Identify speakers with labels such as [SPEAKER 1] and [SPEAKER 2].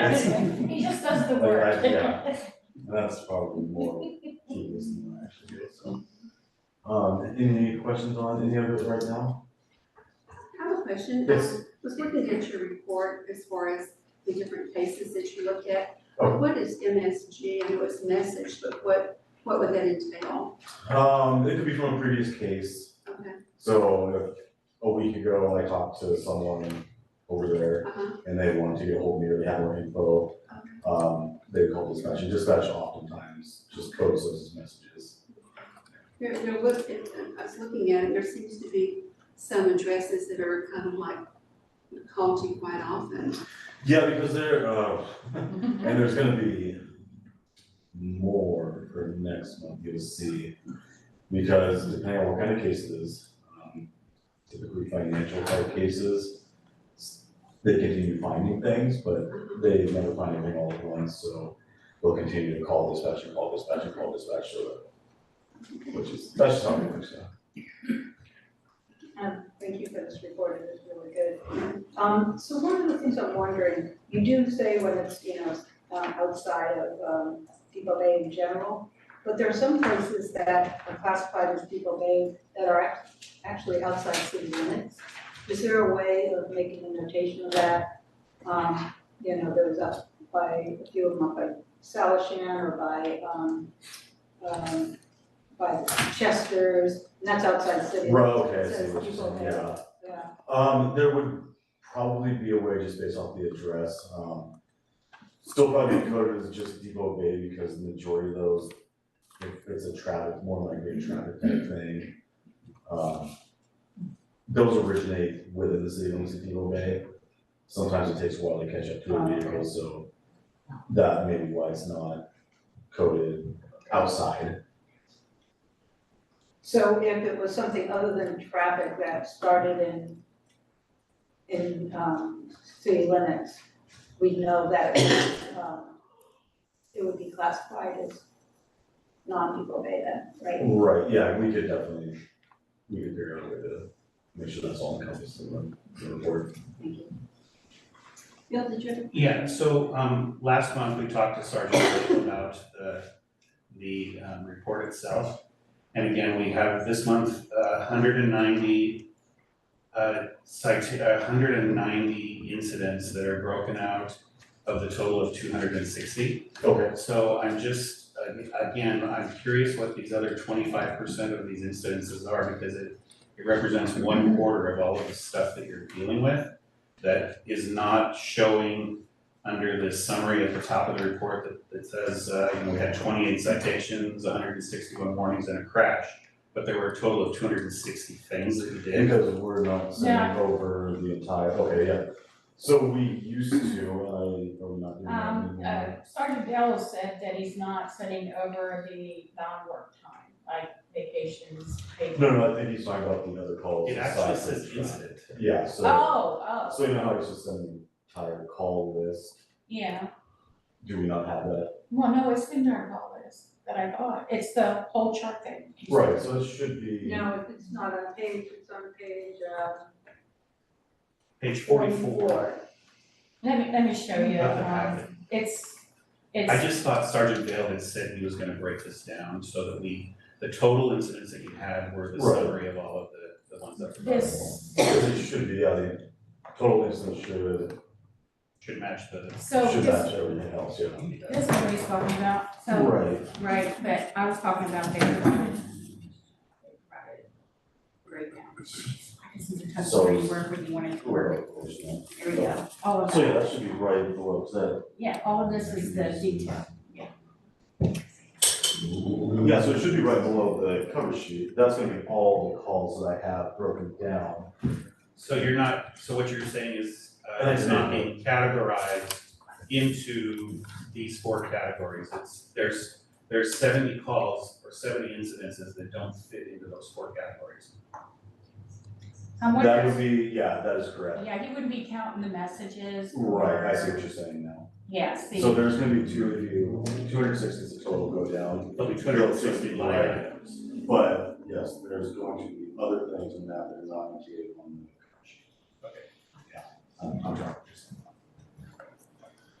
[SPEAKER 1] That's-
[SPEAKER 2] He just does the
[SPEAKER 1] Like,
[SPEAKER 2] work.
[SPEAKER 1] I- Oh, yeah. That's probably more tedious than I actually did, so. Um, any questions on any of it right now?
[SPEAKER 3] I have a question.
[SPEAKER 1] Yes.
[SPEAKER 3] I was looking at your report as far as the different cases that you look at.
[SPEAKER 1] Oh.
[SPEAKER 3] What is MSG? I know it's message, but what, what would that entail?
[SPEAKER 1] Um, it could be from a previous case,
[SPEAKER 3] Okay,
[SPEAKER 1] so if a week ago, I talked to someone over there
[SPEAKER 3] uh-huh,
[SPEAKER 1] and they wanted to get hold of me or they had more info. Um, they called dispatch, and dispatch oftentimes just codes those as messages.
[SPEAKER 3] there, there was, I was looking at it, there seems to be some addresses that are kind of like called to quite often.
[SPEAKER 1] Yeah, because they're, uh, and there's gonna be more for next month, you'll see. Because depending on what kind of cases, um, typically financial type cases, s- they continue finding things, but they never find anything all at once, so they'll continue to call dispatch and call dispatch and call dispatch, so that, which is, that's just how it works now.
[SPEAKER 4] Um, thank you for this report, it was really good. Um, so one of the things I'm wondering, you do say when it's, you know, um, outside of, um, Depot Bay in general, but there are some places that are classified as Depot Bay that are act- actually outside city limits. Is there a way of making a notation of that? Um, you know, there was up by, a few of them up by Salishan or by, um, um, by Chester's, and that's outside city.
[SPEAKER 1] Right, okay, I
[SPEAKER 4] It
[SPEAKER 1] see
[SPEAKER 4] says
[SPEAKER 1] what you're
[SPEAKER 4] Depot
[SPEAKER 1] saying,
[SPEAKER 4] Bay.
[SPEAKER 1] yeah.
[SPEAKER 4] Yeah.
[SPEAKER 1] Um, there would probably be a way just based off the address, um. Still probably be coded as just Depot Bay because the majority of those, if it's a traffic, more likely a traffic type thing. Um, those originate within the city limits of Depot Bay. Sometimes it takes a while to catch up to a vehicle, so that may be why it's not coded outside.
[SPEAKER 4] So if it was something other than traffic that started in, in, um, city limits, we know that, um, it would be classified as non-people beta, right?
[SPEAKER 1] Right, yeah, we could definitely, we could figure out a way to make sure that's all encompassed in the- the report.
[SPEAKER 3] Bill, did you have?
[SPEAKER 5] Yeah, so, um, last month we talked to Sergeant Blake about the, the, um, report itself. And again, we have this month, uh, hundred and ninety, uh, cite, hundred and ninety incidents that are broken out of the total of two hundred and sixty.
[SPEAKER 1] Okay,
[SPEAKER 5] So I'm just, uh, again, I'm curious what these other twenty-five percent of these incidences are because it, it represents one quarter of all of the stuff that you're dealing with that is not showing under the summary at the top of the report that, that says, uh, you know, we had twenty-eight citations, hundred and sixty-one warnings and a crash. But there were a total of two hundred and sixty things that we did.
[SPEAKER 1] because we're not sending over the entire, okay, yeah. So we used to, I, are we not doing that
[SPEAKER 2] Um,
[SPEAKER 1] anymore?
[SPEAKER 2] uh, Sergeant Bell said that he's not sending over the non-work time, like vacations, vac-
[SPEAKER 1] No, no, I think he's talking about the other calls.
[SPEAKER 5] It actually
[SPEAKER 1] aside from
[SPEAKER 5] says
[SPEAKER 1] the-
[SPEAKER 5] incident.
[SPEAKER 1] Yeah, so,
[SPEAKER 2] Oh,
[SPEAKER 1] so
[SPEAKER 2] oh,
[SPEAKER 1] you know how it's just an entire call list,
[SPEAKER 2] yeah,
[SPEAKER 1] do we not have that?
[SPEAKER 2] well, no, it's in our call list that I got, it's the whole chart thing.
[SPEAKER 1] Right, so it should be,
[SPEAKER 4] No, if it's not on page, it's on page, um,
[SPEAKER 5] Page forty-four.
[SPEAKER 2] Let me, let me show you,
[SPEAKER 5] Nothing
[SPEAKER 2] um,
[SPEAKER 5] happened.
[SPEAKER 2] it's,
[SPEAKER 5] I
[SPEAKER 2] it's,
[SPEAKER 5] just thought Sergeant Vale had said he was gonna break this down so that we, the total incidents that you had were the
[SPEAKER 1] Right.
[SPEAKER 5] summary of all of the, the ones that were
[SPEAKER 2] this,
[SPEAKER 1] it should be, yeah, the total instance should,
[SPEAKER 5] should match the.
[SPEAKER 2] so
[SPEAKER 1] should
[SPEAKER 2] this,
[SPEAKER 1] match everything else, yeah.
[SPEAKER 2] this is what he's talking about, so,
[SPEAKER 1] Right,
[SPEAKER 2] right, but I was talking about their private, private breakdown. I just need to touch
[SPEAKER 1] So-
[SPEAKER 2] where you were when you wanted to work,
[SPEAKER 1] right, of course, yeah.
[SPEAKER 2] there we go, all of
[SPEAKER 1] So
[SPEAKER 2] that,
[SPEAKER 1] yeah, that should be right below, 'cause that
[SPEAKER 2] yeah, all of this is the detail.
[SPEAKER 1] Yeah, so it should be right below the cover sheet, that's gonna be all the calls that I have broken down.
[SPEAKER 5] So you're not, so what you're saying is, uh,
[SPEAKER 1] I
[SPEAKER 5] it's
[SPEAKER 1] see.
[SPEAKER 5] not being categorized into these four categories, it's, there's, there's seventy calls or seventy incidences that don't fit into those four categories.
[SPEAKER 2] I'm
[SPEAKER 1] That
[SPEAKER 2] wondering,
[SPEAKER 1] would be, yeah, that is correct.
[SPEAKER 2] yeah, he wouldn't be counting the messages or.
[SPEAKER 1] Right, I see what you're saying now.
[SPEAKER 2] Yeah, see,
[SPEAKER 1] So there's gonna be two of you, two hundred sixty total go down,
[SPEAKER 5] There'll be two hundred and sixty line items.
[SPEAKER 1] but yes, there's going to be other things in that that are not indicated on the cover sheet. Okay. Yeah, I'm, I'm trying to understand.